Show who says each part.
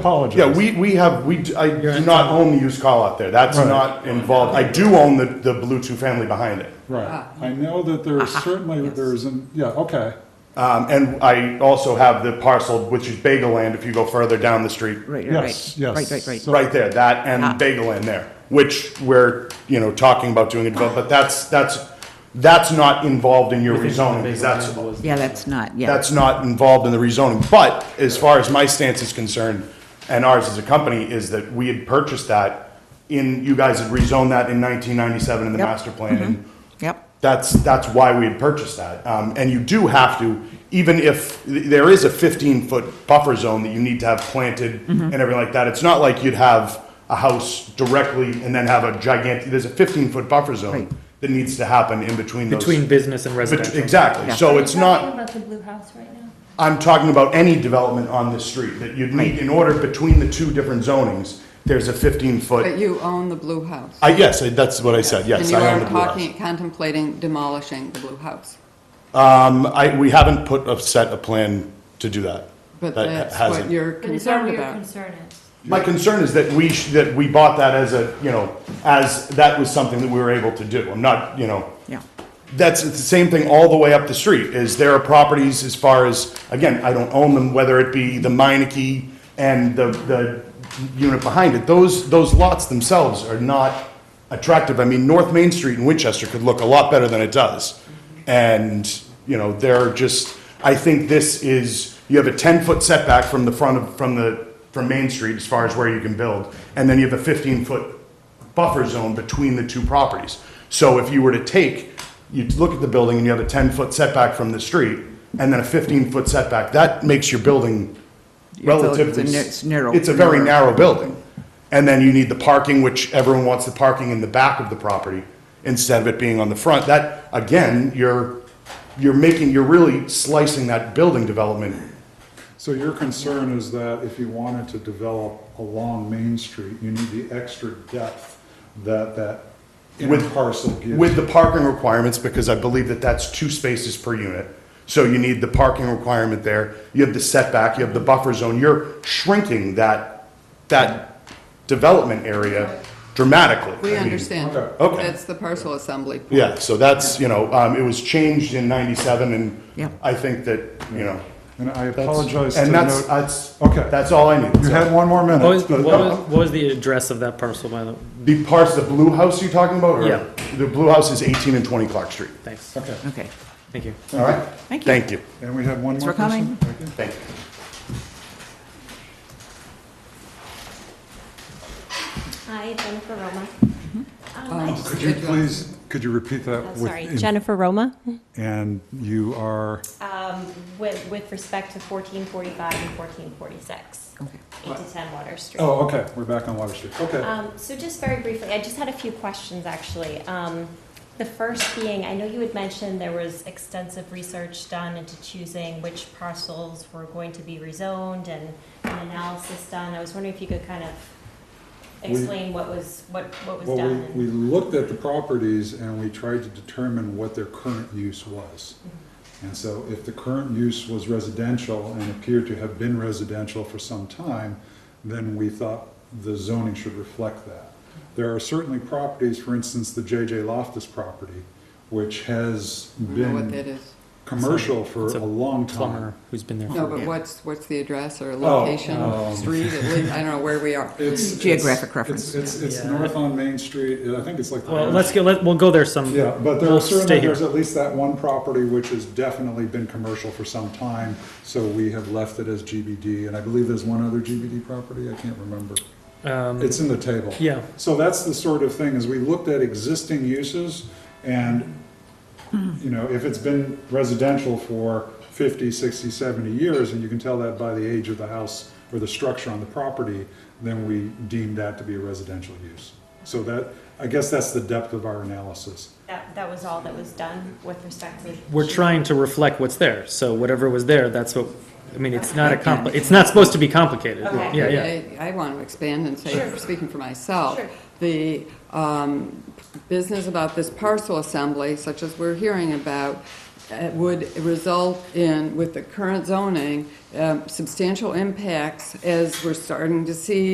Speaker 1: apologize.
Speaker 2: Yeah, we, we have, we, d- I do not own the used car out there. That's
Speaker 1: Right.
Speaker 2: not involved. I do own the, the Blue Two family behind it.
Speaker 1: Right,
Speaker 3: Ah.
Speaker 1: I know that there is certainly, there is, an- yeah, okay,
Speaker 2: Um, and I also have the parcel, which is Bagel Land, if you go further down the street.
Speaker 3: Right, right,
Speaker 1: yes,
Speaker 3: right.
Speaker 1: yes.
Speaker 3: Right, right, right.
Speaker 1: So-
Speaker 2: Right there, that
Speaker 3: Ah.
Speaker 2: and Bagel Land there, which we're, you know, talking about doing it, but but that's, that's, that's not involved in your rezoning, because that's,
Speaker 3: Yeah, that's not, yeah.
Speaker 2: that's not involved in the rezoning. But as far as my stance is concerned, and ours as a company, is that we had purchased that in, you guys had rezoned that in nineteen ninety-seven in the
Speaker 3: Yep. Mm-hmm.
Speaker 2: master plan, and
Speaker 3: Yep,
Speaker 2: that's, that's why we had purchased that. Um, and you do have to, even if, th- there is a fifteen-foot buffer zone that you need to have planted
Speaker 3: Mm-hmm.
Speaker 2: and everything like that. It's not like you'd have a house directly and then have a gigantic, there's a fifteen-foot buffer
Speaker 3: Right.
Speaker 2: zone that needs to happen in between those.
Speaker 4: Between business and
Speaker 2: Bet-
Speaker 4: residential.
Speaker 2: Exactly,
Speaker 3: Yeah.
Speaker 2: so it's not.
Speaker 5: Talking about the blue house right now?
Speaker 2: I'm talking about any development on this street that you'd need, in order between the two different zonings, there's a fifteen
Speaker 6: But
Speaker 2: foot.
Speaker 6: you own the blue house.
Speaker 2: I, yes, I- that's what I said, yes. I own
Speaker 6: And
Speaker 2: the
Speaker 6: you are
Speaker 2: blue house.
Speaker 6: talking, contemplating demolishing the blue house.
Speaker 2: Um, I, we haven't put a set a plan to do that.
Speaker 6: But
Speaker 2: That
Speaker 6: that's
Speaker 2: hasn't-
Speaker 6: what you're
Speaker 5: But is that
Speaker 6: concerned
Speaker 5: what your
Speaker 6: about.
Speaker 5: concern is?
Speaker 2: My concern is that we, sh- that we bought that as a, you know, as, that was something that we were able to do. I'm not, you know,
Speaker 3: yeah.
Speaker 2: that's the same thing all the way up the street, is there are properties as far as, again, I don't own them, whether it be the Meineke and the, the unit behind it, those, those lots themselves are not attractive. I mean, North Main Street in Winchester could look a lot better than it does. And, you know, they're just, I think this is, you have a ten-foot setback from the front of, from the, from Main Street as far as where you can build, and then you have a fifteen-foot buffer zone between the two properties. So if you were to take, you look at the building and you have a ten-foot setback from the street and then a fifteen-foot setback, that makes your building relatively.
Speaker 3: it's a nar- it's narrow-
Speaker 2: It's a very
Speaker 3: narrow.
Speaker 2: narrow building. And then you need the parking, which everyone wants the parking in the back of the property instead of it being on the front. That, again, you're, you're making, you're really slicing that building development.
Speaker 1: So your concern is that if you wanted to develop along Main Street, you need the extra depth that that inner
Speaker 2: With-
Speaker 1: parcel gives.
Speaker 2: With the parking requirements, because I believe that that's two spaces per unit. So you need the parking requirement there, you have the setback, you have the buffer zone, you're shrinking that, that development area dramatically. I
Speaker 6: We
Speaker 2: mean,
Speaker 6: understand.
Speaker 1: Okay.
Speaker 2: Okay.
Speaker 6: That's the parcel assembly. point.
Speaker 2: Yeah, so that's, you know, um, it was changed in ninety-seven
Speaker 3: Yeah.
Speaker 2: and I think that, you know.
Speaker 1: And I
Speaker 2: that's-
Speaker 1: apologize to
Speaker 2: And that's,
Speaker 1: note,
Speaker 2: that's,
Speaker 1: Okay.
Speaker 2: that's all I need.
Speaker 1: you
Speaker 2: So,
Speaker 1: had one more minute.
Speaker 4: What was,
Speaker 1: but- uh,
Speaker 4: what was, what was the address of that parcel, by the,
Speaker 2: The parts, the blue house you're talking about? or-
Speaker 4: Yeah.
Speaker 2: The blue house is eighteen and twenty Clark Street.
Speaker 4: thanks,
Speaker 1: Okay, Uh-huh.
Speaker 3: Okay,
Speaker 4: thank you.
Speaker 2: All right?
Speaker 3: thank you.
Speaker 2: Thank you.
Speaker 1: and we had one
Speaker 3: Thanks
Speaker 1: more
Speaker 3: for
Speaker 1: person?
Speaker 3: coming.
Speaker 1: Thank you.
Speaker 2: Thank you.
Speaker 5: Hi, Jennifer Roma.
Speaker 6: Um,
Speaker 1: Could you please, could you repeat
Speaker 3: Oh,
Speaker 1: that? with-
Speaker 5: Sorry, Jennifer Roma,
Speaker 1: And you are,
Speaker 5: Um, with, with respect to fourteen forty-five and fourteen forty-six, eight to ten Water Street.
Speaker 1: oh, okay, we're back on Water Street, okay.
Speaker 5: Um, so just very briefly, I just had a few questions, actually. Um, the first being, I know you had mentioned there was extensive research done into choosing which parcels were going to be rezoned and an analysis done. I was wondering if you could kind of
Speaker 1: We-
Speaker 5: explain what was, what, what was
Speaker 1: Well,
Speaker 5: done.
Speaker 1: we, we looked at the properties and we tried to determine what their current use was.
Speaker 5: Mm-hmm.
Speaker 1: And so if the current use was residential and appeared to have been residential for some time, then we thought the zoning should reflect that.
Speaker 5: Mm-hmm.
Speaker 1: There are certainly properties, for instance, the JJ Loftus property, which has
Speaker 6: I don't know
Speaker 1: been
Speaker 6: what that is.
Speaker 1: commercial for
Speaker 4: It's
Speaker 1: a long
Speaker 4: Plumber
Speaker 1: time.
Speaker 4: who's been there
Speaker 6: No,
Speaker 4: for,
Speaker 6: but what's, what's the address or location,
Speaker 1: um,
Speaker 6: street, at least, I don't know where we are.
Speaker 1: It's-
Speaker 3: Geographic
Speaker 1: it's-
Speaker 3: reference.
Speaker 1: It's, it's, it's
Speaker 4: Yeah.
Speaker 1: north on Main Street, I think it's like. the
Speaker 4: well,
Speaker 1: orange
Speaker 4: let's go, let, we'll go there some.
Speaker 1: Yeah, but there
Speaker 4: we'll
Speaker 1: are certainly,
Speaker 4: stay here.
Speaker 1: there's at least that one property which has definitely been commercial for some time, so we have left it as GBD, and I believe there's one other GBD property, I can't remember.
Speaker 4: Um,
Speaker 1: It's in the table.
Speaker 4: yeah,
Speaker 1: So that's the sort of thing, is we looked at existing uses, and, you know, if it's been residential for 50, 60, 70 years, and you can tell that by the age of the house or the structure on the property, then we deem that to be a residential use. So that, I guess that's the depth of our analysis.
Speaker 5: That, that was all that was done with respect to.
Speaker 4: we're trying to reflect what's there, so whatever was there, that's what, I mean, it's not a compli, it's not supposed to be complicated.
Speaker 5: Okay.
Speaker 4: Yeah, yeah.
Speaker 6: I I want to expand and say,
Speaker 5: Sure.
Speaker 6: speaking for myself,
Speaker 5: Sure.
Speaker 6: the um, business about this parcel assembly, such as we're hearing about, uh, would result uh, in, with the current zoning, um, substantial impacts as we're starting to see